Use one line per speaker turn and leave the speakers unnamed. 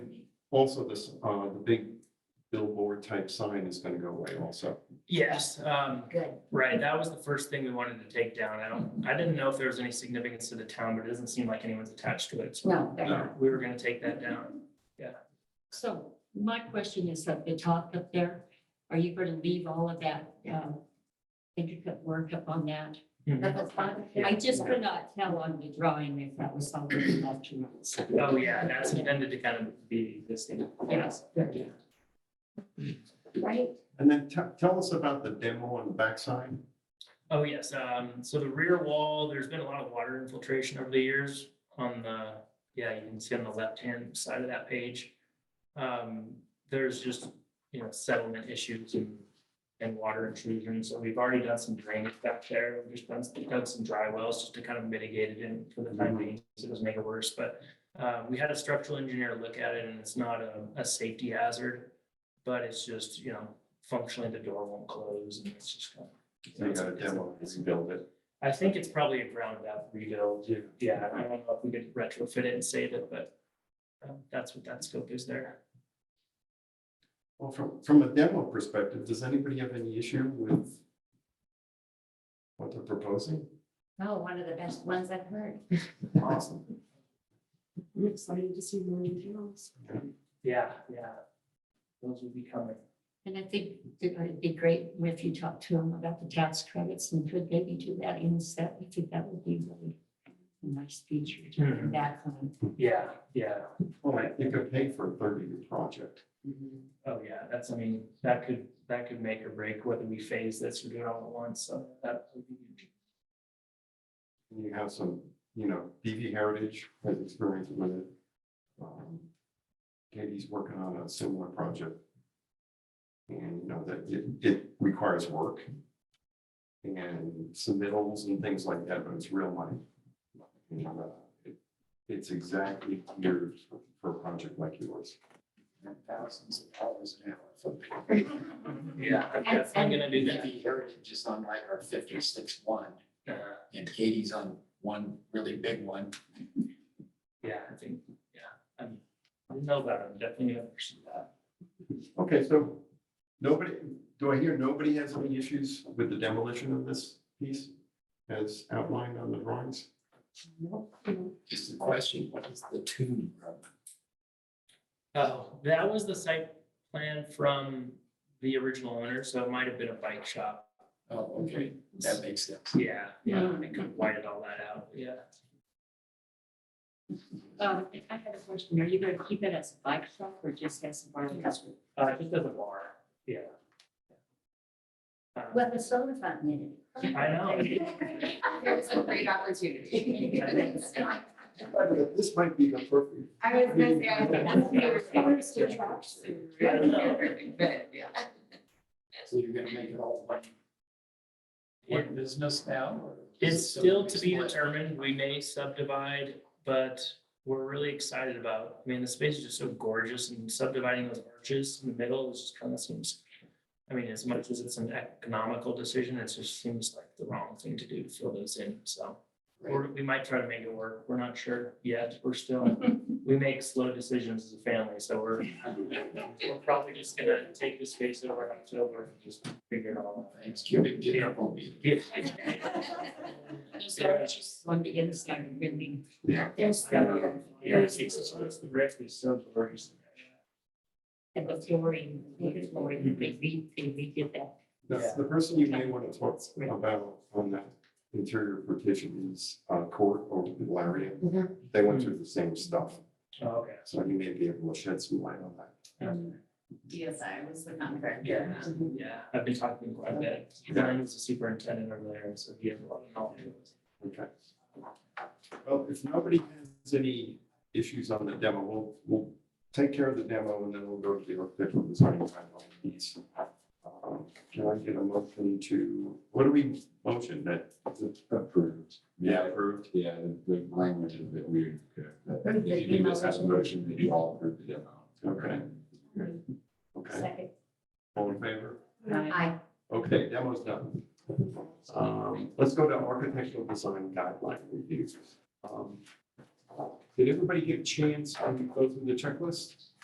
Also, this, uh, the big billboard type sign is gonna go away also.
Yes, um,
Good.
right, that was the first thing we wanted to take down. I don't, I didn't know if there was any significance to the town, but it doesn't seem like anyone's attached to it. So
No, they're not.
we were gonna take that down.
So my question is at the top up there, are you going to leave all of that um, intricate work up on that?
Mhm.
That's fine. I just could not tell on the drawing if that was something left or not.
Oh, yeah, that's intended to kind of be this thing.
Yes. Right?
And then te- tell us about the demo on the backside.
Oh, yes, um, so the rear wall, there's been a lot of water infiltration over the years on the, yeah, you can see on the left-hand side of that page. Um, there's just, you know, settlement issues and, and water intrusion, so we've already done some drainage back there. We've just done, some- dug some dry wells just to kind of mitigate it in for the
Mm-hmm.
time being, so it doesn't make it worse, but uh, we had a structural engineer look at it and it's not a, a safety hazard, but it's just, you know, functionally the door won't close and it's just kind of.
So you got a demo, as you build it.
I think it's probably a ground up rebuild. Yeah, I don't know if we could retrofit it and save it, but um, that's what that scope is there.
Well, from, from a demo perspective, does anybody have any issue with what they're proposing?
Oh, one of the best ones I've heard.
Awesome.
I'm excited to see more details.
Yeah, yeah. Those will be coming.
And I think that it'd be great if you talked to them about the tax credits and could maybe do that in set. I think that would be really a nice feature to bring back on.
Yeah, yeah.
Well, I think I paid for a thirty-year project.
Oh, yeah, that's, I mean, that could, that could make or break whether we phase this or do it all at once, so that would be huge.
And You have some, you know, BV Heritage has experience with it. Um, Katie's working on a similar project. And you know that it, it requires work. And submittals and things like that, but it's real money. You know, uh, it- It's exactly geared for a project like yours.
thousands of dollars an hour.
Yeah, I'm definitely gonna do that.
DV Heritage is on like our fifty-six one,
Uh,
and Katie's on one really big one.
Yeah, I think, yeah, I'm, I know about it, I'm definitely gonna pursue that.
Okay, so nobody, do I hear nobody has any issues with the demolition of this piece as outlined on the drawings?
Is the question, what is the tune of?
Oh, that was the site plan from the original owner, so it might have been a bike shop
Oh, okay, that makes sense.
Yeah, yeah,
Mm.
I could whited all that out, yeah.
Um, I had a question. Are you going to keep it as a bike shop or just as a bar and restaurant?
Uh, just as a bar, yeah. Uh,
Well, the soda fountain in it.
I know,
It's a great opportunity.
This might be the perfect
I was gonna say, I think that's your first attraction. But, yeah.
So you're gonna make it all one. One business now? or is it
it's still to be
split?
determined, we may subdivide, but we're really excited about, I mean, the space is just so gorgeous and subdividing those arches in the middle is just kind of seems, I mean, as much as it's an economical decision, it just seems like the wrong thing to do, to fill those in, so. Or we might try to make it work. We're not sure yet. We're still, we make slow decisions as a family, so we're, we're probably just gonna take the space over in October and just figure it all
Thanksgiving dinner will be.
out.
On the inside, really.
Yeah.
There's.
Yeah.
the-
Yeah, it's, it's, it's the rest is so diverse.
And the flooring, the flooring, they re, they redid that.
That's the person you may want to talk about on that interior partition is uh, Court over in Laria. They went through the same stuff,
Oh, Okay.
so you may be able to shed some light on that.
DSI was the contractor.
Yeah, yeah, I've been talking to quite a bit. Brian's the superintendent over there, so he has a lot of knowledge.
Okay. Well, if nobody has any issues on the demo, we'll, we'll take care of the demo and then we'll go to the architectural design timeline piece. Um, Can I get a motion to, what do we motion that?
Approved.
Approved.
Yeah, the, the language is a bit weird.
Approved the
If you do this as a
demo.
motion, that you all approve the demo.
Okay. Okay,
Second.
all in favor?
I,
Okay, demo's done. Um, let's go to architectural design guideline reviews. Um, Did everybody get a chance to go through the checklist?